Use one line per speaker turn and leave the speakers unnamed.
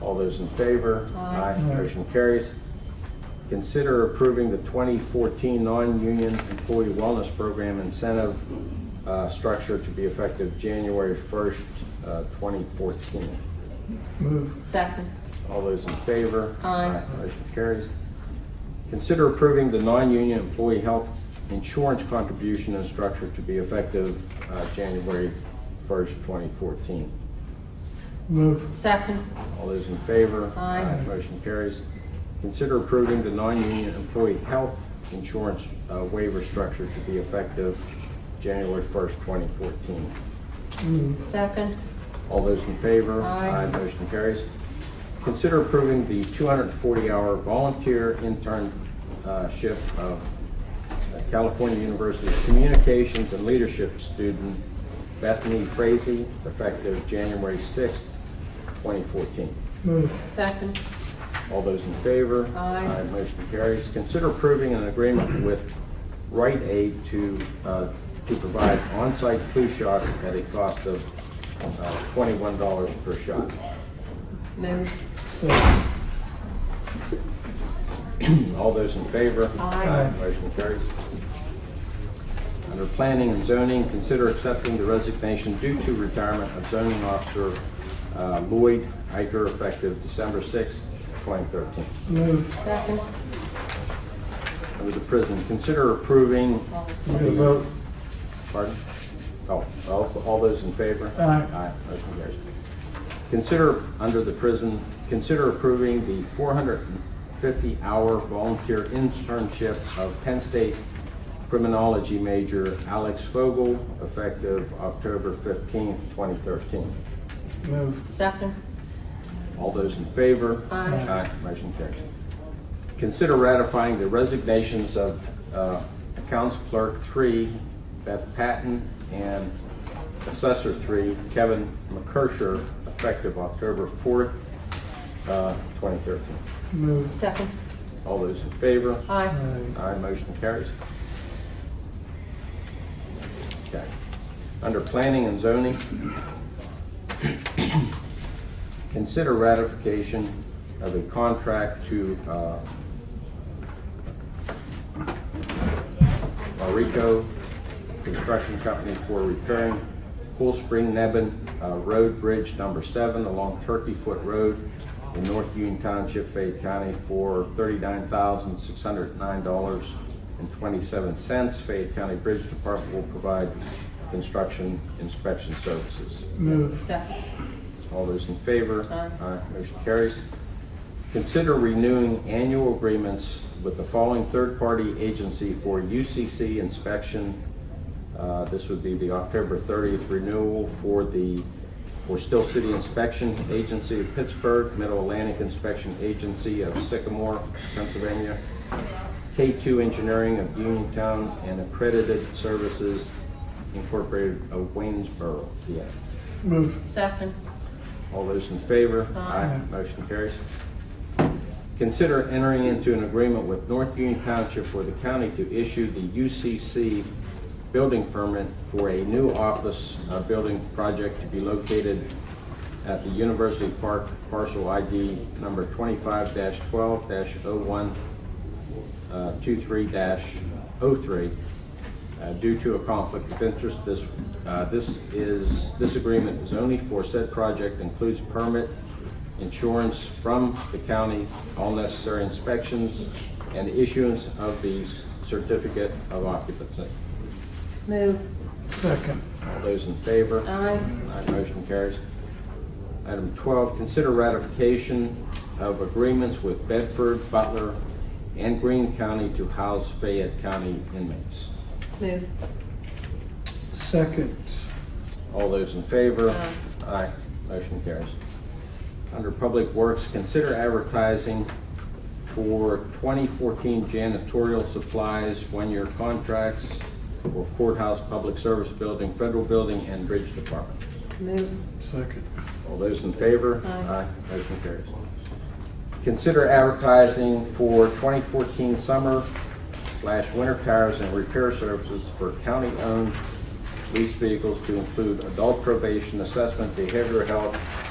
All those in favor?
Aye.
Motion carries. Consider approving the 2014 non-union employee wellness program incentive uh, structure to be effective January 1st, uh, 2014.
Move.
Second.
All those in favor?
Aye.
Motion carries. Consider approving the non-union employee health insurance contribution and structure to be effective uh, January 1st, 2014.
Move.
Second.
All those in favor?
Aye.
Motion carries. Consider approving the non-union employee health insurance uh, waiver structure to be effective January 1st, 2014.
Move.
Second.
All those in favor?
Aye.
Motion carries. Consider approving the 240-hour volunteer internship of California University Communications and Leadership student Bethany Frazee, effective January 6th, 2014.
Move.
Second.
All those in favor?
Aye.
Motion carries. Consider approving an agreement with Rite Aid to, uh, to provide on-site flu shots at a cost of uh, $21 per shot.
Move.
Second.
All those in favor?
Aye.
Motion carries. Under planning and zoning, consider accepting the resignation due to retirement of zoning officer uh, Lloyd Iker effective December 6th, 2013.
Move.
Second.
Under the prison, consider approving
Need a vote.
Pardon? Oh, all, all those in favor?
Aye.
motion carries. Consider, under the prison, consider approving the four hundred and fifty hour volunteer internship of Penn State criminology major Alex Fogel, effective October fifteenth, twenty thirteen.
Move.
Second.
All those in favor?
Aye.
motion carries. Consider ratifying the resignations of uh, Accounts Clerk Three, Beth Patton, and Assessor Three, Kevin McCursher, effective October fourth, uh, twenty thirteen.
Move.
Second.
All those in favor?
Aye.
Aye.
Aye, motion carries. Okay. Under planning and zoning, consider ratification of a contract to uh, Marico Construction Company for repairing Cool Spring Nebben uh, Road Bridge Number Seven along Turkey Foot Road in North Union Township, Fayette County for thirty-nine thousand, six hundred nine dollars and twenty-seven cents. Fayette County Bridge Department will provide construction inspection services.
Move.
Second.
All those in favor?
Aye.
Motion carries. Consider renewing annual agreements with the following third-party agency for UCC inspection. Uh, This would be the October 30th renewal for the, for Still City Inspection Agency of Pittsburgh, Middle Atlantic Inspection Agency of Sycamore, Pennsylvania, K2 Engineering of Uniontown, and Accredited Services Incorporated of Waynesboro, PA.
Move.
Second.
All those in favor?
Aye.
Motion carries. Consider entering into an agreement with North Union Township for the county to issue the UCC building permit for a new office uh, building project to be located at the University Park parcel ID number oh 25-12-0123-03 uh, due to a conflict of interest. This, uh, this is, this agreement is only for said project, includes permit, insurance from the county, all necessary inspections, and issuance of the certificate of occupancy.
Move.
Second.
All those in favor?
Aye.
Aye, motion carries. Item 12, consider ratification of agreements with Bedford, Butler, and Greene County to house Fayette County inmates.
Move.
Second.
All those in favor?
Aye.
Aye. Motion carries. Under Public Works, consider advertising for 2014 janitorial supplies, one-year contracts for courthouse, public service building, federal building, and bridge department.
Move.
Second.
All those in favor?
Aye.
Motion carries. Consider advertising for 2014 summer slash winter tires and repair services for county-owned leased vehicles to include adult probation assessment, behavioral health,